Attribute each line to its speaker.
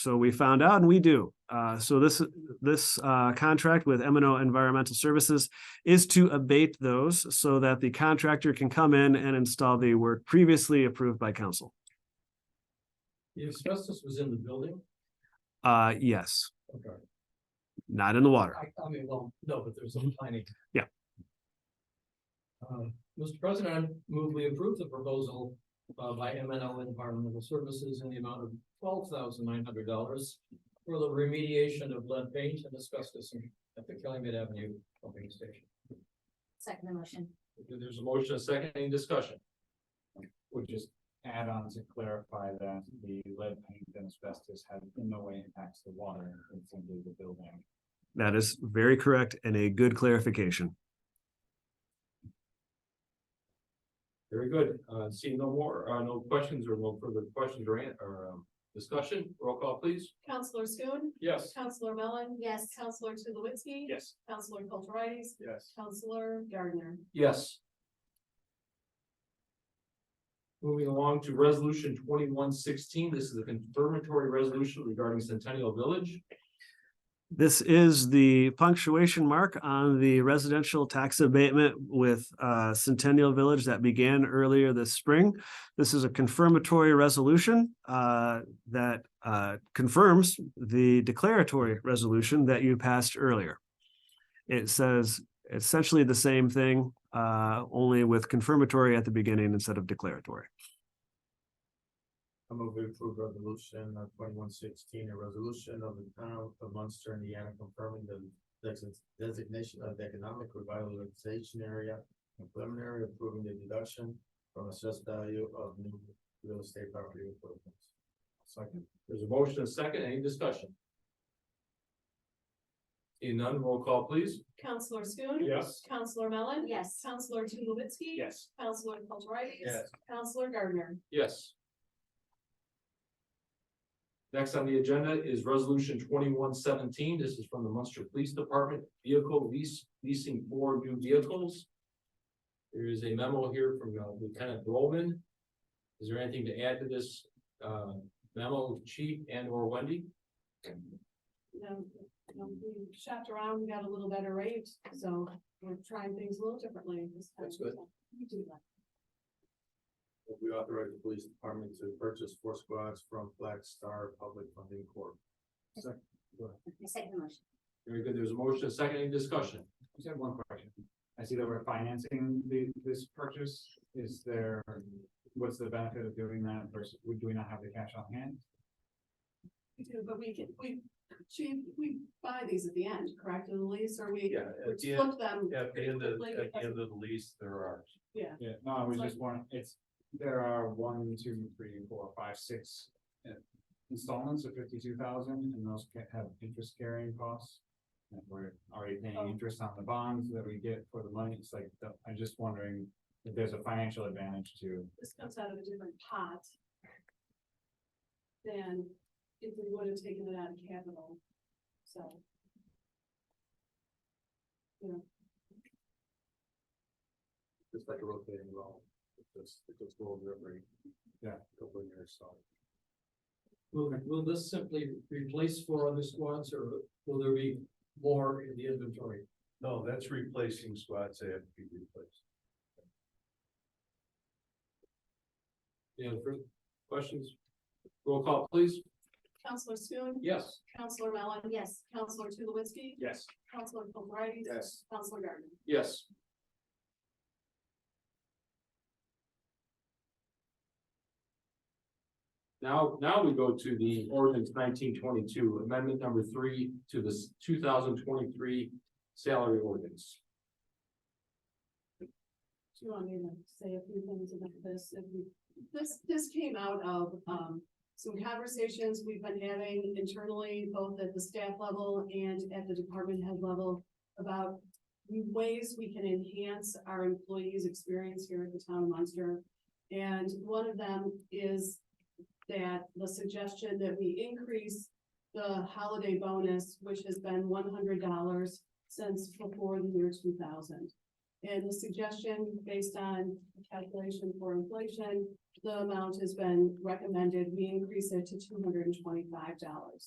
Speaker 1: So we found out and we do. Uh, so this, this, uh, contract with M and O Environmental Services is to abate those so that the contractor can come in and install the work previously approved by council.
Speaker 2: The asbestos was in the building?
Speaker 1: Uh, yes,
Speaker 2: Okay.
Speaker 1: not in the water.
Speaker 2: I, I mean, well, no, but there's some tiny.
Speaker 1: Yeah.
Speaker 2: Um, Mr. President, I move we approve the proposal uh by M N L Environmental Services in the amount of twelve thousand nine hundred dollars for the remediation of lead paint and asbestos in- at the Calumet Avenue pumping station.
Speaker 3: Second the motion.
Speaker 2: There's a motion, a second, any discussion?
Speaker 4: would just add on to clarify that the lead paint and asbestos have in no way impacts the water that's under the building.
Speaker 1: That is very correct and a good clarification.
Speaker 2: Very good. Uh, seeing no more, uh, no questions or no further questions or, an- or, um, discussion, roll call please.
Speaker 5: Counselor Schoen,
Speaker 2: Yes.
Speaker 5: Counselor Mellon.
Speaker 3: Yes.
Speaker 5: Counselor Tulowitzki.
Speaker 4: Yes.
Speaker 5: Counselor Kulturitis,
Speaker 4: Yes.
Speaker 5: Counselor Gardner.
Speaker 2: Yes. Moving along to resolution twenty-one sixteen, this is a confirmatory resolution regarding Centennial Village.
Speaker 1: This is the punctuation mark on the residential tax abatement with uh, Centennial Village that began earlier this spring. This is a confirmatory resolution uh, that uh, confirms the declaratory resolution that you passed earlier. It says essentially the same thing, uh, only with confirmatory at the beginning instead of declaratory.
Speaker 4: I move to approve resolution uh, twenty-one sixteen, a resolution of the town of Munster, Indiana confirming the desi- designation of the economic revitalization area. and Preliminary approving the deduction from assessed value of new real estate property improvements. Second.
Speaker 2: There's a motion and a second, any discussion? Seeing none, roll call please.
Speaker 5: Counselor Schoen.
Speaker 2: Yes.
Speaker 5: Counselor Mellon.
Speaker 3: Yes.
Speaker 5: Counselor Tulowitzki.
Speaker 4: Yes.
Speaker 5: Counselor Kulturitis.
Speaker 4: Yes.
Speaker 5: Counselor Gardner.
Speaker 2: Yes. Next on the agenda is resolution twenty-one seventeen, this is from the Munster Police Department, vehicle lease, leasing four new vehicles. There is a memo here from uh, Lieutenant Roman. Is there anything to add to this, uh, memo, chief and or Wendy?
Speaker 5: You know, you know, we shopped around, we got a little better rate, so we're trying things a little differently this time.
Speaker 2: That's good.
Speaker 5: We do that.
Speaker 4: We authorize the police department to purchase four squads from Black Star Public Funding Corp.
Speaker 3: I second the motion.
Speaker 2: Very good, there's a motion, a second, any discussion?
Speaker 4: Just have one question. I see that we're financing the, this purchase. Is there, what's the benefit of doing that versus, would- do we not have the cash on hand?
Speaker 5: We do, but we can, we, chief, we buy these at the end, correct, of the lease, or we
Speaker 6: Yeah,
Speaker 5: we
Speaker 6: at the end,
Speaker 5: flip them,
Speaker 6: at the end of,
Speaker 5: like,
Speaker 6: at the end of the lease, there are,
Speaker 5: yeah.
Speaker 4: Yeah, no, I was
Speaker 5: It's
Speaker 4: just wondering, it's, there are one, two, three, four, five, six uh, installments of fifty-two thousand, and those ca- have interest carrying costs. And we're already paying
Speaker 5: Oh.
Speaker 4: interest on the bonds that we get for the money, it's like, the- I'm just wondering if there's a financial advantage to,
Speaker 5: this comes out of a different pot. Than if we would have taken it out of capital, so.
Speaker 6: it's like a rotating loan. It just, it just rolls every.
Speaker 4: Yeah.
Speaker 6: Couple of years, so.
Speaker 2: Will, will this simply replace four other squads, or will there be more in the inventory?
Speaker 6: No, that's replacing squads that have to be replaced.
Speaker 2: Any other questions? Roll call please.
Speaker 5: Counselor Schoen.
Speaker 2: Yes.
Speaker 5: Counselor Mellon.
Speaker 3: Yes.
Speaker 5: Counselor Tulowitzki.
Speaker 4: yes.
Speaker 5: Counselor Kulturitis.
Speaker 4: Yes.
Speaker 5: Counselor Gardner.
Speaker 2: Yes. Now, now we go to the ordinance nineteen twenty-two, amendment number three to the two thousand twenty-three salary ordinance.
Speaker 5: Do you want me to say a few things about this? If you- This, this came out of, um, some conversations we've been having internally, both at the staff level and at the department head level about ways we can enhance our employees' experience here at the town of Munster. And one of them is that the suggestion that we increase the holiday bonus, which has been one hundred dollars since before the year two thousand. And the suggestion based on calculation for inflation, the amount has been recommended, we increase it to two hundred and twenty-five dollars.